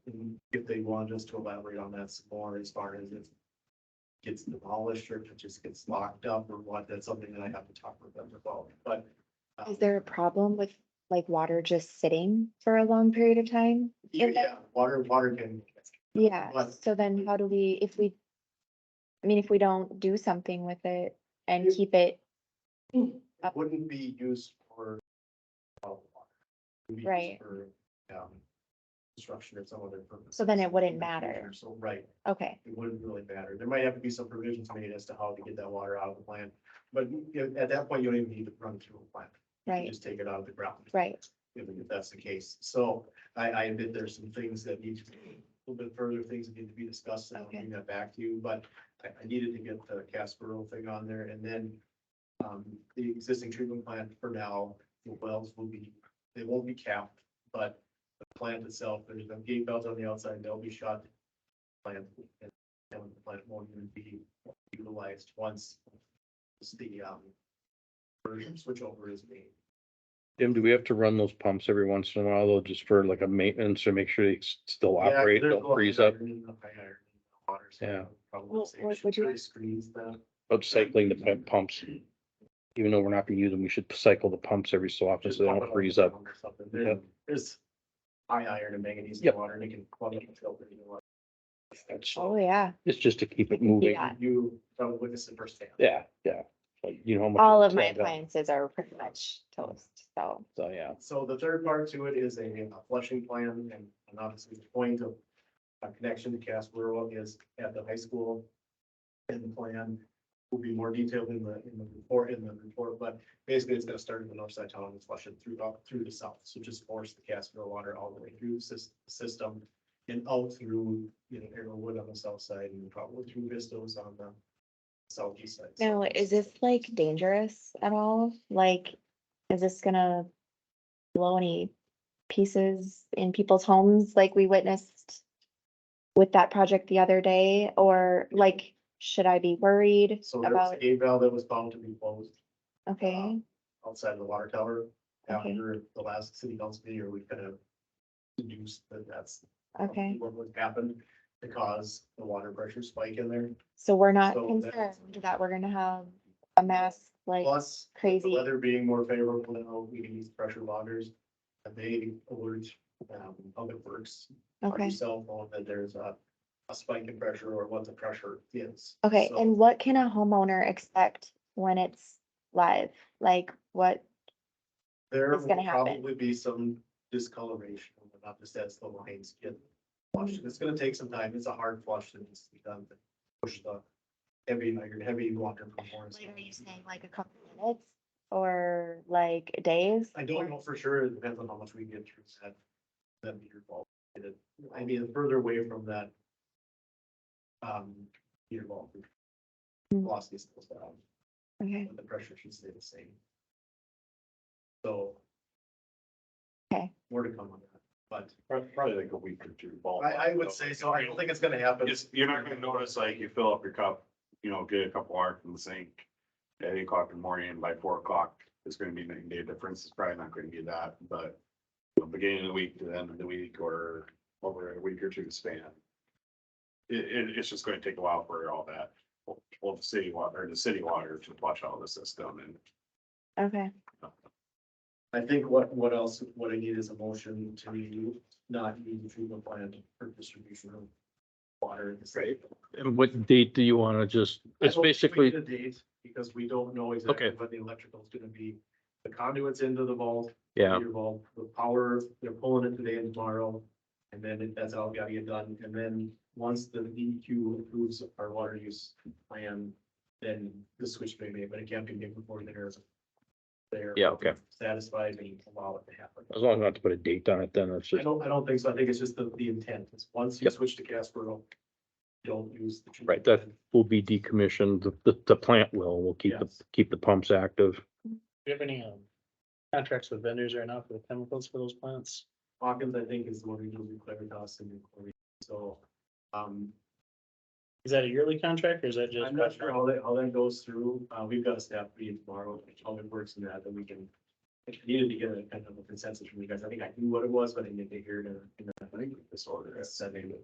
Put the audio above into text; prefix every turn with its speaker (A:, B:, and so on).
A: want just to elaborate on that some more as far as if it gets demolished or if it just gets locked up or what, that's something that I have to talk with them about, but. um,
B: Is there a problem with like water just sitting for a long period of time? in there?
A: Yeah, water, water can,
B: Yeah,
A: But-
B: so then how do we, if we, I mean, if we don't do something with it and
A: You-
B: keep it, Oh.
A: it wouldn't be used for. uh, water. It would be used
B: Right.
A: For, um, construction or some other purpose.
B: so then it wouldn't
A: in the future,
B: matter.
A: So, right,
B: Okay,
A: it wouldn't really matter. There might have to be some provisions made as to how to get that water out of the plant. But you know, at that point, you don't even need to run through a plant. You
B: right,
A: Just take it out of the ground.
B: right.
A: If if that's the case. So I, I admit there's some things that need to, be a little bit further things that need to be discussed. and I'll
B: Okay.
A: bring that back to you, but I, I needed to get the Casperell thing on there and then um, the existing treatment plant for now, the wells will be, they won't be capped, but the plant itself, there's no gate valves on the outside, they'll be shut. Plant, and and the plant won't even be utilized once the um version switchover is made.
C: Jim, do we have to run those pumps every once in a while, though, just for like a maintenance to make sure they s- still
A: Yeah,
C: operate,
A: there's a lot
C: don't
A: of
C: freeze up?
A: iron in the fire, in the water, so
C: Yeah.
A: probably
B: Well,
A: say
B: what
A: should
B: would you-
A: really Squeeze them.
C: About cycling the pump pumps, even though we're not gonna use them, we should cycle the pumps every so often
A: Just
C: so they
A: pump it
C: don't
A: up
C: freeze
A: and
C: up.
A: down or something. There-
C: Yep.
A: There's high iron and manganese in
C: Yep.
A: the water and it can plug up and filter you know,
C: That's-
B: Oh, yeah.
C: It's just to keep it moving.
B: Yeah.
A: You, probably witnessed it firsthand.
C: Yeah, yeah. Like, you know. how much
B: All
C: it
B: of my
C: clogged up.
B: appliances are pretty much toast, so,
C: So, yeah,
A: So the third part to it is a a flushing plan and and obviously the point of a connection to Casper is at the high school. And the plan will be more detailed in the, in the report, in the report, but basically it's gonna start in the north side town and flush it through, up through the south. So just force the Casper water all the way through the sys- system and out through, you know, Arrowwood on the south side and probably through Vistos on the southeast side.
B: now,
A: So-
B: is this like dangerous at all? Like, is this gonna blow any pieces in people's homes like we witnessed with that project the other day, or like, should I be worried
A: So there was a
B: about,
A: gate valve that was bound to be closed.
B: okay?
A: outside of the water tower
B: Okay.
A: after the last city council meeting, or we kind of deduced that that's
B: Okay,
A: what would happen to cause the water pressure spike in there.
B: so we're not
A: So that's-
B: concerned that we're gonna have a mass like
A: Plus, the
B: crazy,
A: weather being more favorable now, we can use pressure loggers. And they alert um public works. on your
B: okay,
A: Cell phone that there's a a spike in pressure or what the pressure is.
B: okay,
A: So
B: and what can a homeowner expect when it's live? Like, what,
A: There
B: is gonna
A: will
B: happen?
A: probably be some discoloration, not just as the lines get flushed. It's gonna take some time. It's a hard flush that needs to be done to push the heavy, iron, heavy water from Lawrence.
B: like, are you saying like a couple minutes or like days?
A: I don't
B: or-
A: know for sure. It depends on how much we get through that, that meter ball. And it- I mean, the further away from that um, meter ball, the
B: Hmm.
A: velocity slows down,
B: Okay,
A: but the pressure should stay the same. So.
B: Okay.
A: More to come on that, but
D: Prob- Probably like a week or two. ballpark,
A: I, I would
D: though.
A: say so. I don't think it's gonna happen.
D: It's, you're not gonna notice, like, you fill up your cup, you know, get a cup of water from the sink at eight o'clock in the morning, by four o'clock, it's gonna be night and day difference, it's probably not gonna be that, but you know, beginning of the week to the end of the week, or over a week or two span. It, it, it's just gonna take a while for all that, well, the city water, the city water to flush out of the system and
B: okay,
A: I think what, what else, what I need is a motion to not use the treatment plant for distribution of water. in the state.
C: and what date do you wanna just,
A: I
C: it's
A: don't think we
C: basically,
A: need a date, because we don't know exactly
C: Okay.
A: what the electrical is gonna be. The conduits into the vault,
C: yeah,
A: your vault, the power, they're pulling it today and tomorrow. And then it- that's all gotta get done, and then once the DEQ approves our water use plan, then the switch may be, made, but it can't be made before they're. They're.
C: yeah, okay.
A: satisfied and allow it to happen.
C: As long as not to put a date on it, then
A: I
C: it's just,
A: don't, I don't think so. I think it's just the, the intent is once you
C: Yep.
A: switch to Casper, don't use. the
C: Right,
A: treatment.
C: will be decommissioned, the, the, the plant will, we'll keep the,
A: Yes.
C: keep the pumps active.
E: Do you have any um contracts with vendors right now for the chemicals for those plants?
A: Hawkins, I think, is the one who deals with Claritas and chlorine. So, um,
E: Is that a yearly contract or is that just?
A: I'm not sure how that, how that goes through. Uh, we've got a staff meeting tomorrow, how it works in that, then we can. If we needed to get a kind of a consensus from you guys, I think I knew what it was, but I didn't get to hear it in, a- in a disorder. That's that name.